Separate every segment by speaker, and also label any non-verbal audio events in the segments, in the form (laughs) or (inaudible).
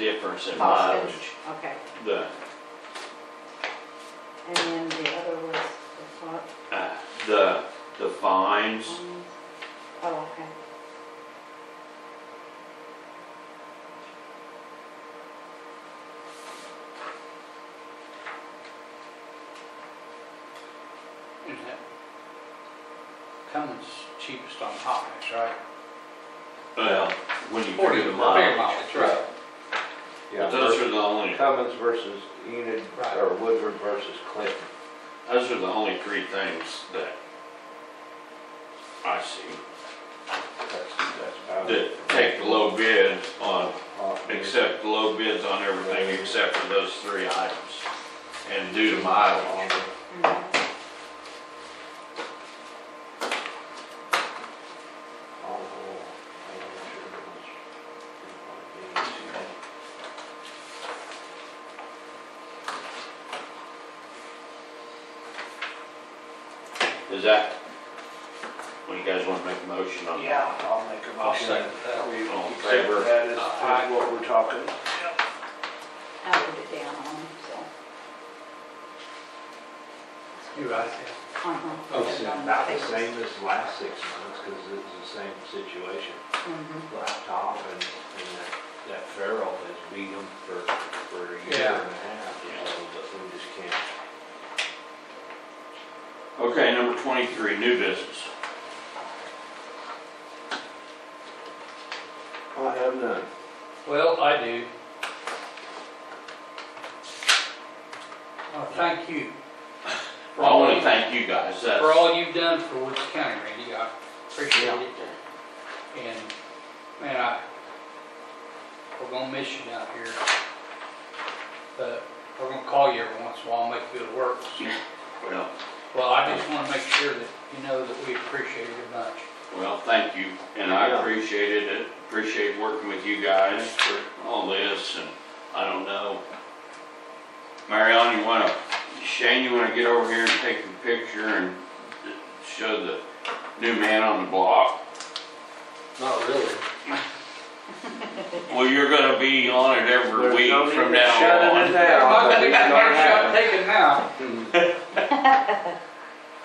Speaker 1: difference in
Speaker 2: Cost
Speaker 1: mileage.
Speaker 2: is- Okay,
Speaker 1: The,
Speaker 2: and then the other was the what?
Speaker 1: uh, the, the fines,
Speaker 2: Um, Oh, okay.
Speaker 3: Is that Cummins cheapest on Hotmix, right?
Speaker 1: well, when you figure the
Speaker 3: Bigger
Speaker 1: mileage.
Speaker 3: mileage, right.
Speaker 1: But
Speaker 4: Yeah,
Speaker 1: those are
Speaker 4: versus
Speaker 1: the only,
Speaker 4: Cummins versus Enid,
Speaker 3: Right.
Speaker 4: or Woodward versus Clinton.
Speaker 1: those are the only three things that I see,
Speaker 4: That's, that's about
Speaker 1: that
Speaker 4: it. Uh,
Speaker 1: take the low bid on,
Speaker 4: Hot mix.
Speaker 1: accept the low bids on everything except for those three items. And do the
Speaker 4: uh,
Speaker 1: mileage.
Speaker 2: Mhm.
Speaker 4: Oh, I'm not sure it was- it might be easy.
Speaker 1: Is that, when you guys wanna make a motion on that?
Speaker 4: Yeah, I'll make a
Speaker 3: I'll
Speaker 4: motion
Speaker 3: second
Speaker 4: that
Speaker 3: that.
Speaker 4: we
Speaker 1: All in
Speaker 4: accept
Speaker 1: favor?
Speaker 4: that as,
Speaker 3: Aye.
Speaker 4: as what we're talking.
Speaker 2: I put it down on, them, so.
Speaker 3: You're right,
Speaker 2: uh-huh.
Speaker 4: It's about the Oh, same as the last six months, because it was the same situation.
Speaker 2: Mhm.
Speaker 4: Laptop and, and that, that Farrell has beat them for, for a year
Speaker 3: Yeah.
Speaker 4: and a half, you know, but we just can't.
Speaker 1: Okay, number twenty-three, new business.
Speaker 4: I have none.
Speaker 3: Well, I do. Well, thank you. for
Speaker 1: I
Speaker 3: all
Speaker 1: wanna
Speaker 3: you-
Speaker 1: thank you guys, that's.
Speaker 3: For all you've done for Woods County, Randy, I appreciate it. And, man, I, we're gonna miss you down here. But we're gonna call you every once in a while, and make you go to work.
Speaker 1: Well,
Speaker 3: Well, I just wanna make sure that you know that we appreciate it much.
Speaker 1: well, thank you, and I
Speaker 4: Yeah.
Speaker 1: appreciated it, appreciate working with you guys for all this, and I don't know. Marion, you wanna, Shane, you wanna get over here and take a picture and show the new man on the block?
Speaker 5: Not really.
Speaker 1: Well, you're gonna be on it every
Speaker 4: There's
Speaker 1: week
Speaker 4: no need
Speaker 1: from
Speaker 4: to shut
Speaker 1: now
Speaker 4: it
Speaker 1: on.
Speaker 4: down,
Speaker 3: Not
Speaker 4: but
Speaker 3: gonna
Speaker 4: it's
Speaker 3: get my
Speaker 4: gonna
Speaker 3: shot
Speaker 4: happen.
Speaker 3: taken now.
Speaker 1: Hmm.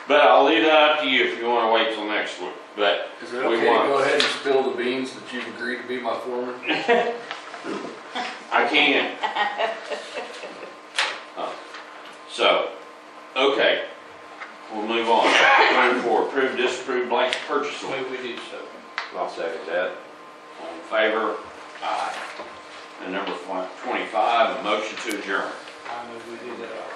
Speaker 1: But I'll leave that up to you if you wanna wait till next week, but
Speaker 5: Is it
Speaker 1: We
Speaker 5: okay to
Speaker 1: want-
Speaker 5: go ahead and spill the beans that you've agreed to be my foreman?
Speaker 1: I (laughs) can't. Huh. Oh. So, okay, we'll move on. Twenty-four, approve, disapprove blank purchase order.
Speaker 3: Maybe we do so.
Speaker 4: I'll second that.
Speaker 1: All in favor? Aye. And number fi- twenty-five, a motion to adjourn.
Speaker 3: I move we do that.